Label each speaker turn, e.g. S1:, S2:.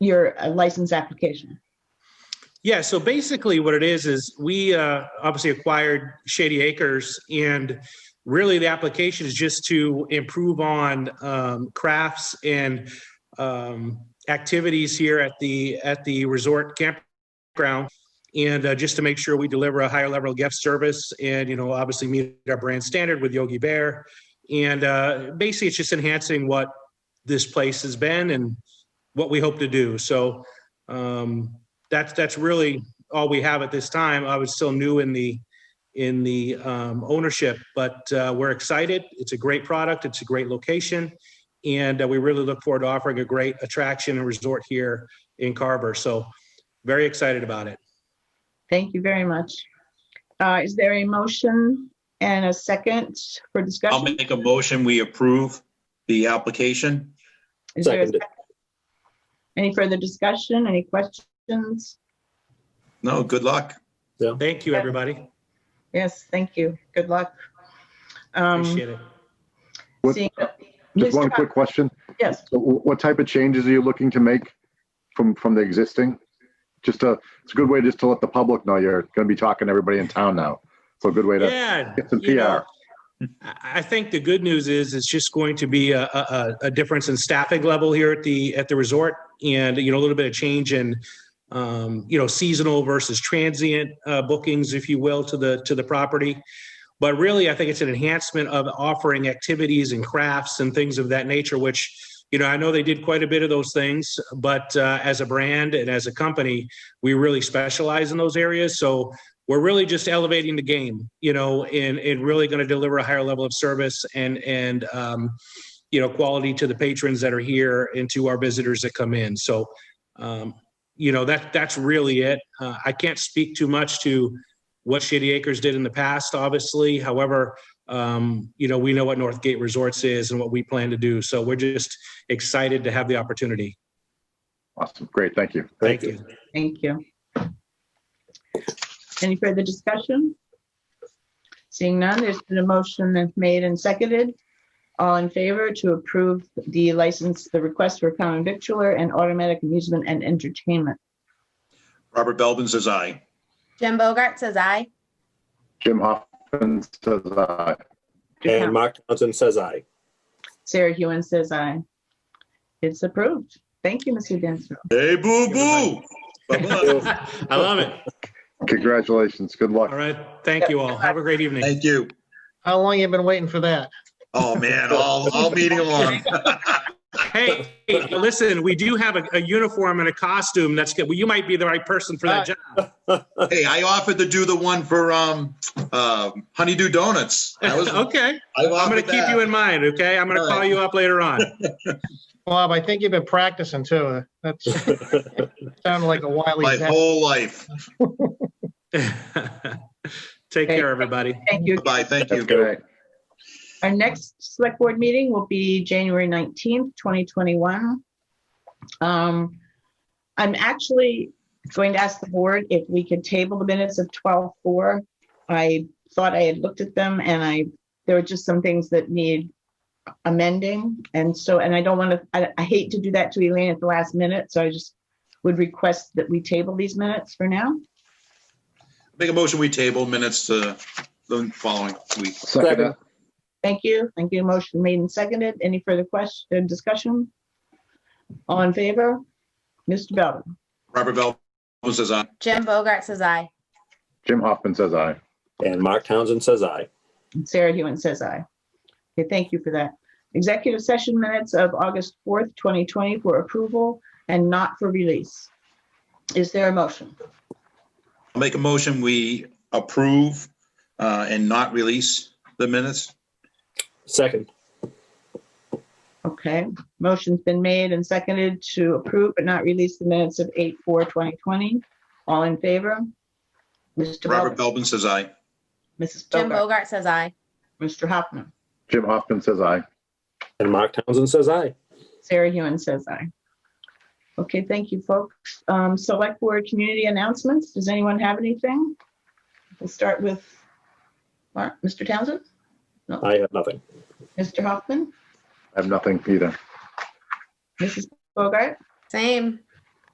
S1: your uh, license application?
S2: Yeah, so basically what it is, is we uh, obviously acquired Shady Acres and really the application is just to improve on um, crafts and um, activities here at the, at the resort campground. And uh, just to make sure we deliver a higher level of guest service and, you know, obviously meet our brand standard with Yogi Bear. And uh, basically it's just enhancing what this place has been and what we hope to do. So um, that's that's really all we have at this time. I was still new in the in the um, ownership, but uh, we're excited. It's a great product. It's a great location, and uh, we really look forward to offering a great attraction and resort here in Carver. So very excited about it.
S1: Thank you very much. Uh, Is there a motion and a second for
S3: I'll
S1: discussion?
S3: make a motion, we approve the application.
S1: Is there a
S4: Second.
S1: second? Any further discussion? Any questions?
S3: No, good luck.
S2: Thank you, everybody.
S1: Yes, thank you. Good luck. Um,
S2: Appreciate it.
S5: What-
S1: seeing-
S5: Just
S1: Mr.
S5: one
S1: Cox,
S5: quick question.
S1: Yes,
S5: So wh- What type of changes are you looking to make from, from the existing? Just a, it's a good way just to let the public know you're going to be talking to everybody in town now. So a good way to
S2: Yeah.
S5: get some
S2: you know,
S5: PR.
S2: I I think the good news is it's just going to be a, a, a- a difference in staffing level here at the at the resort, and you know a little bit of change in um, you know seasonal versus transient uh, bookings, if you will, to the to the property. But really, I think it's an enhancement of offering activities and crafts and things of that nature, which you know I know they did quite a bit of those things, but uh, as a brand and as a company, we really specialize in those areas. So we're really just elevating the game, you know, and, and really going to deliver a higher level of service and, and, um, you know, quality to the patrons that are here and to our visitors that come in. So, um, you know, that, that's really it. Uh, I can't speak too much to what Shady Acres did in the past, obviously. However, um, you know, we know what Northgate Resorts is and what we plan to do. So we're just excited to have the opportunity.
S5: Awesome. Great. Thank you.
S2: Thank you.
S1: thank you. Any further discussion? Seeing none, there's been a motion that's made and seconded. All in favor to approve the license, the request for common victualler and automatic amusement and entertainment.
S3: Robert Belvin says aye.
S6: Jim Bogart says aye.
S5: Jim Hoffman says aye.
S4: And Mark Townsend says aye.
S1: Sarah Hewen says aye. It's approved. Thank you, Mr. Densmore.
S3: Hey, boo-boo. Bye-bye.
S2: I love it.
S5: Congratulations. Good
S2: All
S5: luck.
S2: right. Thank you all. Have a great evening.
S3: Thank you.
S7: How long you been waiting for that?
S3: Oh, man, all, all meeting long.
S2: Hey, hey, listen, we do have a, a uniform and a costume. That's good. Well, you might be the right person for that job.
S3: Hey, I offered to do the one for, um, uh, Honeydew Donuts. I was, I
S2: okay. I'm going
S3: offered
S2: to keep you
S3: that.
S2: in mind. Okay. I'm going to
S3: All
S2: call
S3: right.
S2: you up later on.
S7: Bob, I think you've been practicing too. That's sounded like a wily.
S3: My
S7: vet.
S3: whole life.
S2: Take
S1: Okay.
S2: care,
S3: uh,
S2: everybody.
S1: Thank you.
S3: Bye, thank
S5: Have a
S3: you.
S5: good night.
S1: Our next select board meeting will be January nineteenth, twenty twenty-one. Um, I'm actually going to ask the board if we could table the minutes of twelve four. I thought I had looked at them and I, there were just some things that need amending. And so, and I don't want to, I, I hate to do that to Elaine at the last minute, so I just would request that we table these minutes for now.
S3: Make a motion, we table minutes to the following week.
S5: Second.
S4: Second.
S1: Thank you. Thank you. Motion made and seconded. Any further question, uh, discussion? All in favor? Mr. Belvin?
S3: Robert Belvin says aye.
S6: Jim Bogart says aye.
S5: Jim Hoffman says aye.
S4: And Mark Townsend says aye.
S1: Sarah Hewen says aye. Okay, thank you for that. Executive session minutes of August 4th, 2020 for approval and not for release. Is there a motion?
S3: I'll make a motion, we approve uh, and not release the minutes.
S4: Second.
S1: Okay, motion's been made and seconded to approve but not release the minutes of 8/4/2020. All in favor? Mr.
S3: Robert
S1: Belvin?
S3: Belvin says aye.
S1: Mrs.
S6: Jim
S1: Bogart?
S6: Bogart says aye.
S1: Mr. Hoffman?
S5: Jim Hoffman says aye.
S4: And Mark Townsend says aye.
S1: Sarah Hewen says aye. Okay, thank you, folks. Um, Select Board Community Announcements. Does anyone have anything? We'll start with Mark, Mr. Townsend,
S4: I have nothing.
S1: Mr. Hoffman,
S5: I have nothing either.
S1: Mrs. Bogart,
S6: Same.